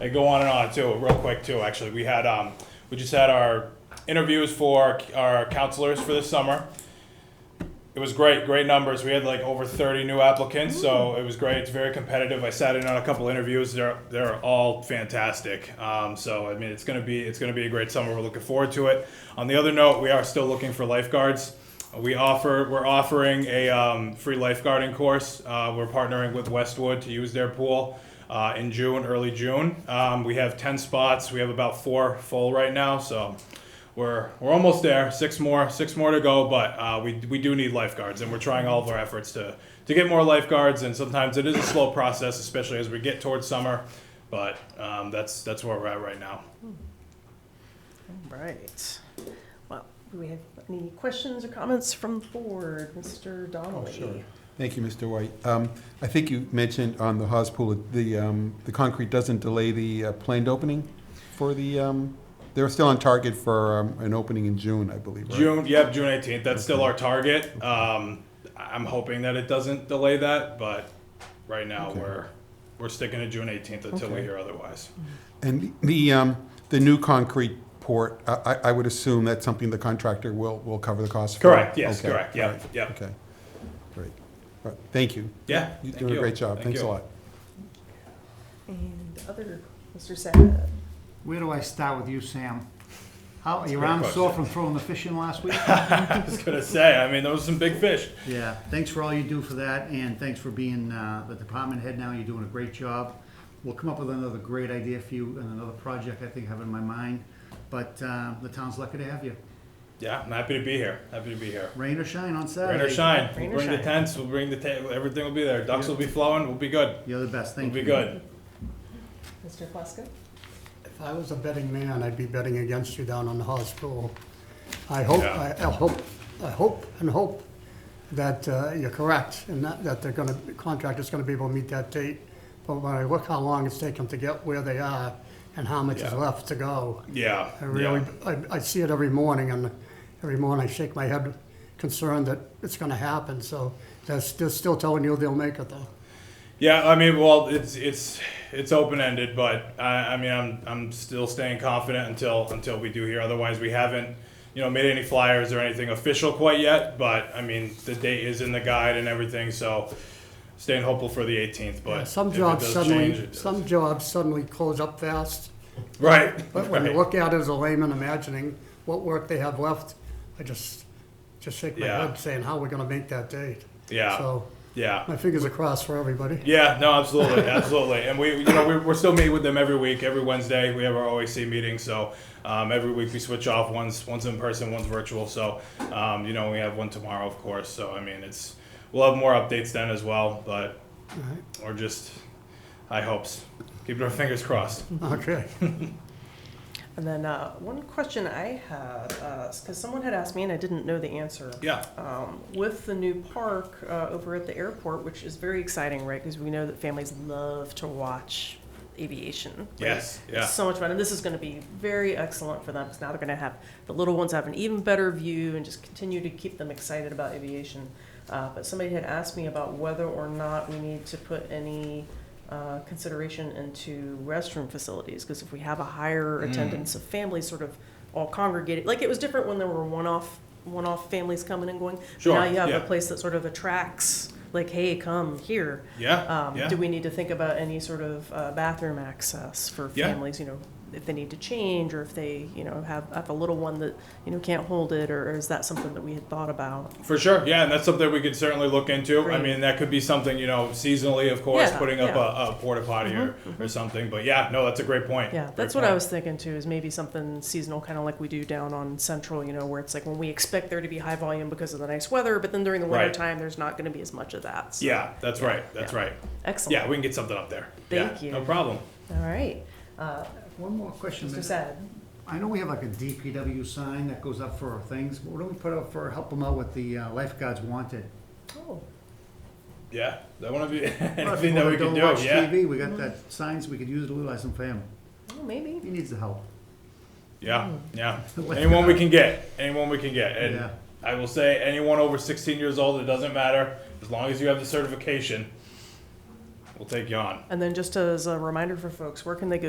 I go on and on too, real quick too. Actually, we had um, we just had our interviews for our, our counselors for this summer. It was great, great numbers. We had like over 30 new applicants, so it was great. It's very competitive. I sat in on a couple interviews. They're they're all fantastic. Um, so I mean, it's gonna be it's gonna be a great summer. We're looking forward to it. On the other note, we are still looking for lifeguards. We offer we're offering a um, free lifeguarding course. Uh, we're partnering with Westwood to use their pool uh, in June, early June. Um, we have 10 spots. We have about four full right now, so we're we're almost there. Six more, six more to go, but uh, we we do need lifeguards, and we're trying all of our efforts to to get more lifeguards. And sometimes it is a slow process, especially as we get towards summer. But um, that's that's where we're at right now. Right. Well, do we have any questions or comments from the board? Mr. Donnelly? Thank you, Mr. White. Um, I think you mentioned on the Haas Pool, the, um, the concrete doesn't delay the uh, planned opening for the, um, they're still on target for um, an opening in June, I believe, right? June, yep, June eighteenth. That's still our target. Um, I- I'm hoping that it doesn't delay that, but right now Okay. we're we're sticking to June eighteenth until we Okay. Mm-hmm. hear otherwise. And the, um, the new concrete port, I, I- I would assume that's something the contractor will, will cover the cost for? Correct, yes, Okay, correct, yeah, all right, yeah. Okay, great. All right, Thank you. Yeah, You're thank doing you. a great job. Thank Thanks a you. lot. And other, Mr. Sad? Where do I start with you, Sam? How, your a good arm's sore from throwing the fish in last week? I was gonna say. I mean, those are some big fish. Yeah, thanks for all you do for that, and thanks for being uh, the department head now, you're doing a great job. We'll come up with another great idea for you and another project I think I have in my mind, but uh, the town's lucky to have you. Yeah, I'm happy to be here. Happy to be here. Rain or shine on Saturday. Rain or shine, Rain we'll or bring the shine. tents. We'll bring the ta- everything will be there. Ducks will be flowing. We'll be good. You're the best, We'll thank you. be good. Mr. Plaska? If I was a betting man, I'd be betting against you down on the hospital. I hope, I, Yeah. I hope, I hope and hope that uh, you're correct and that, that they're gonna, the contractor's gonna be able to meet that date. But when I look how long it's taken to get where they are and how much is Yeah. left to go, Yeah. I really, yeah. I, I see it every morning and every morning I shake my head concerned that it's gonna happen. So that's, they're still telling you they'll make it though. Yeah, I mean, well, it's it's it's open ended, but I, I mean, I'm I'm still staying confident until until we do here. Otherwise, we haven't, you know, made any flyers or anything official quite yet. But I mean, the date is in the guide and everything, so staying hopeful for the 18th. But Yeah, Some if it jobs does change, suddenly, it does. some jobs suddenly close up fast. right. But when you right. look at it as a layman imagining what work they have left, I just, just shake my Yeah. head saying, how are we gonna make that date? yeah, So, yeah. my fingers are crossed for everybody. Yeah, no, absolutely, absolutely. And we, you know, we're, we're still meeting with them every week, every Wednesday. We have our OAC meeting, so um, every week we switch off. One's one's in person, one's virtual. So, um, you know, we have one tomorrow, of course. So, I mean, it's we'll have more updates then as well. But we're just high hopes, keeping our fingers crossed. Okay. And then uh, one question I had, because someone had asked me and I didn't know the answer. Yeah, Um, With the new park uh, over at the airport, which is very exciting, right? Because we know that families love to watch aviation. right? Yes, It's yeah. So much fun, and this is going to be very excellent for them, because now they're going to have, the little ones have an even better view and just continue to keep them excited about aviation. Uh, But somebody had asked me about whether or not we need to put any uh, consideration into restroom facilities, because if we have a higher Mm. attendance of families sort of all congregated, like it was different when there were one-off, one-off families coming and going. Sure, Now you have yeah. a place that sort of attracts, like, hey, come here. yeah, Um, yeah. Do we need to think about any sort of uh, bathroom access for Yeah. families, you know, if they need to change or if they, you know, have, have a little one that, you know, can't hold it, or is that something that we had thought about? For sure, yeah, and that's something we could certainly look into. I Great. mean, that could be something you know seasonally, of course, Yeah, putting up yeah. a, a porta potty or, or something. But yeah, no, that's a great point. Yeah, Great that's what point. I was thinking too, is maybe something seasonal, kind of like we do down on Central, you know, where it's like when we expect there to be high volume because of the nice weather, but then during the Right. winter time, there's not gonna be as much of that. So, Yeah, that's right. That's yeah. right. Excellent. Yeah, we can get something up there. Yeah, Thank you. No problem. All right. Uh, One more question. Mr. Mr. Sad, I know we have like a DPW sign that goes up for our things, but what do we put up for, help them out with the uh, lifeguards wanted? oh, Yeah, that one of you. Well, if anything that people we can don't do. watch Yeah, TV, we got that signs, we could use it to utilize them for him. oh, maybe. He needs the help. yeah, Hmm. yeah. Let's Anyone go. we can get. Anyone we can get. And Yeah. I will say, anyone over 16 years old, it doesn't matter. As long as you have the certification, we'll take you on. And then just as a reminder for folks, where can they go